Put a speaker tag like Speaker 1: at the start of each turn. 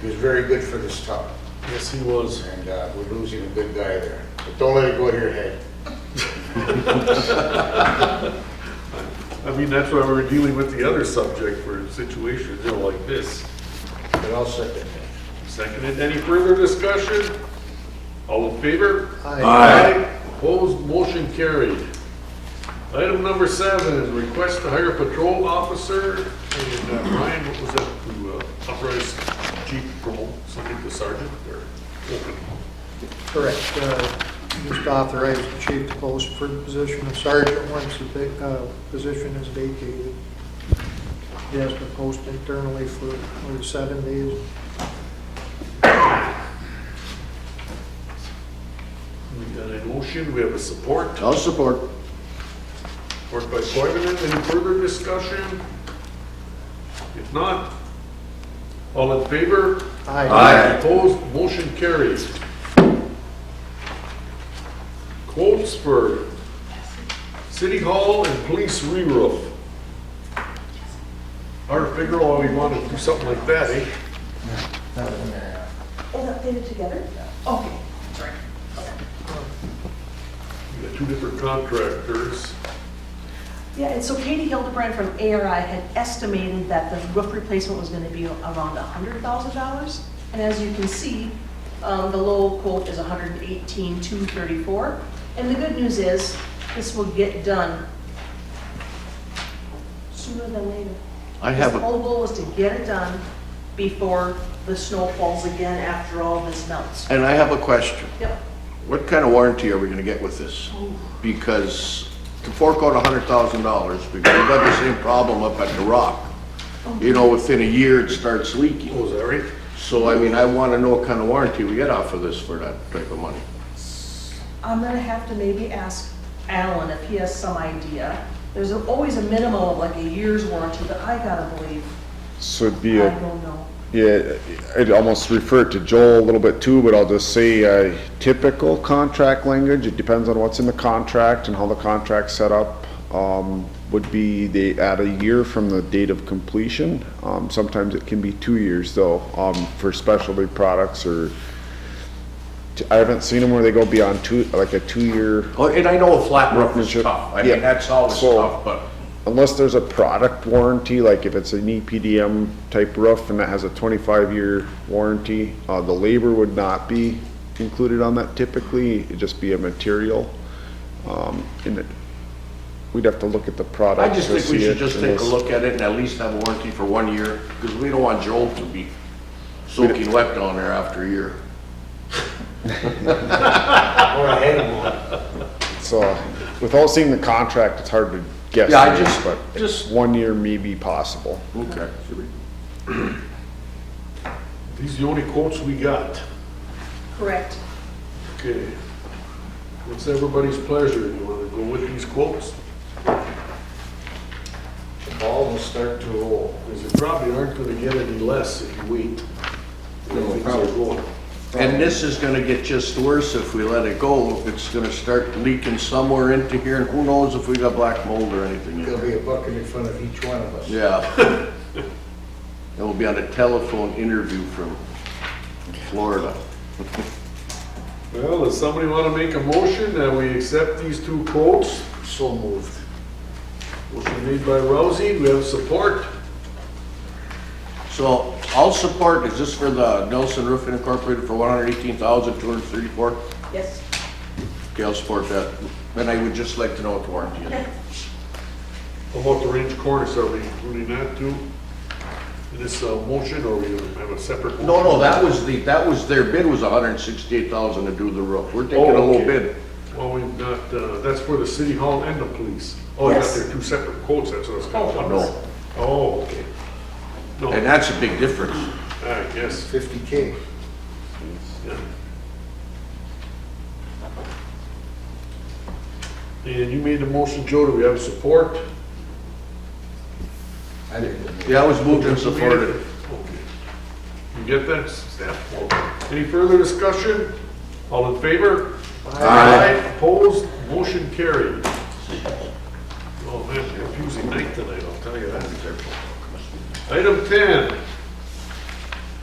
Speaker 1: He was very good for this town,
Speaker 2: Yes, he was.
Speaker 1: and uh, we're losing a good guy there. But don't let it go to your head.
Speaker 2: I mean, that's why we're dealing with the other subject for situations, you know, like this.
Speaker 1: But I'll second that.
Speaker 2: Seconded, any further discussion? All in favor?
Speaker 3: Aye.
Speaker 2: Opposed, motion carried. Item number seven is request to hire a patrol officer, and uh, Ryan, what was that, to uh, uprise chief promote something to sergeant or open?
Speaker 4: Correct. Uh, Just authorize the chief to post for the position of sergeant once the va- uh, position is vacated. He has to post internally for for seven days.
Speaker 2: We got a motion, we have a support.
Speaker 3: I'll support.
Speaker 2: Worked by Coivinon, any further discussion? If not, all in favor?
Speaker 3: Aye.
Speaker 2: Opposed, motion carries. Quotes for City Hall and Police re-roof. Hard to figure out why we want to do something like that, eh?
Speaker 5: Is Oh, that dated together? Okay.
Speaker 2: We got two different contractors.
Speaker 5: Yeah, and so Katie Hildebrand from ARI had estimated that the roof replacement was gonna be around hundred thousand dollars. And as you can see, um, the low quote is 118,234. hundred and eighteen, two thirty-four. And the good news is, this will get done sooner than later.
Speaker 3: I have
Speaker 5: The
Speaker 3: a,
Speaker 5: whole goal is to get it done before the snow falls again after all this melts.
Speaker 3: and I have a question.
Speaker 5: Yep.
Speaker 3: What kind of warranty are we gonna get with this? Because to fork out a hundred thousand dollars, because we've got the same problem up at the Rock. You know, within a year, it starts leaking.
Speaker 2: Oh, is that right?
Speaker 3: So, I mean, I wanna know what kind of warranty we get off of this for that type of money.
Speaker 5: I'm gonna have to maybe ask Alan if he has some idea. There's always a minimum of like a year's warranty, but I gotta believe,
Speaker 6: So it'd
Speaker 5: I
Speaker 6: be, a-
Speaker 5: don't know.
Speaker 6: yeah, I'd almost refer it to Joel a little bit too, but I'll just say uh, typical contract language, it depends on what's in the contract and how the contract's set up, um, would be they add a year from the date of completion. Um, Sometimes it can be two years though, um, for specialty products or, I haven't seen them where they go beyond two, like a two-year
Speaker 3: Oh, And I know a flat roof is
Speaker 6: Workmanship.
Speaker 3: tough. I
Speaker 6: Yeah.
Speaker 3: mean, that's always
Speaker 6: So-
Speaker 3: tough, but
Speaker 6: unless there's a product warranty, like if it's an EPDM type roof and that has a twenty-five year warranty, uh, the labor would not be included on that typically, it'd just be a material. Um, and it, we'd have to look at the
Speaker 3: I
Speaker 6: product.
Speaker 3: just
Speaker 6: to
Speaker 3: think we
Speaker 6: see
Speaker 3: should
Speaker 6: it
Speaker 3: just
Speaker 6: and
Speaker 3: take a
Speaker 6: it's-
Speaker 3: look at it and at least have a warranty for one year, because we don't want Joel to be soaking wet down there after a year.
Speaker 1: Or I had him on.
Speaker 6: So, without seeing the contract, it's hard to guess.
Speaker 3: Yeah, I just-
Speaker 6: but
Speaker 3: just-
Speaker 6: One year may be possible.
Speaker 3: Okay.
Speaker 2: These are the only quotes we got.
Speaker 5: Correct.
Speaker 2: Okay. What's everybody's pleasure? You want to go with these quotes?
Speaker 1: The ball will start to roll.
Speaker 2: Because you probably aren't going to get any less if you wait. No, probably.
Speaker 3: And this is gonna get just worse if we let it go. It's gonna start leaking somewhere into here, and who knows if we got black mold or anything in
Speaker 1: There'll
Speaker 3: there.
Speaker 1: be a bucket in front of each one of us.
Speaker 3: Yeah. It will be on a telephone interview from Florida.
Speaker 2: Well, does somebody want to make a motion that we accept these two quotes?
Speaker 1: So moved.
Speaker 2: Motion made by Rousey, we have support.
Speaker 3: So I'll support, is this for the Nelson Roofing Incorporated for one hundred eighteen thousand, two hundred thirty-four?
Speaker 5: Yes.
Speaker 3: Okay, I'll support that. And I would just like to know what the warranty is.
Speaker 2: How about the range cornice, are we including that too? In this uh, motion, or we have a separate? motion?
Speaker 3: No, no, that was the, that was, their bid was hundred and sixty-eight thousand to do the roof. We're taking a
Speaker 2: Oh,
Speaker 3: low
Speaker 2: okay.
Speaker 3: bid.
Speaker 2: Well, we've got, uh, that's for the city hall and the police. Oh, you got
Speaker 5: Yes.
Speaker 2: their two separate quotes, that's what I was calling.
Speaker 3: No,
Speaker 2: Oh, okay. No,
Speaker 3: and that's a big difference.
Speaker 2: I guess,
Speaker 1: Fifty K.
Speaker 2: yeah. And you made the motion, Joe, do we have support?
Speaker 1: I didn't.
Speaker 3: Yeah, I was moved and supported.
Speaker 2: Okay. You get that, Steph? Okay. Any further discussion? All in favor? Opposed, motion carried. Oh, Well, man, confusing night tonight, I'll tell you that. Item 10,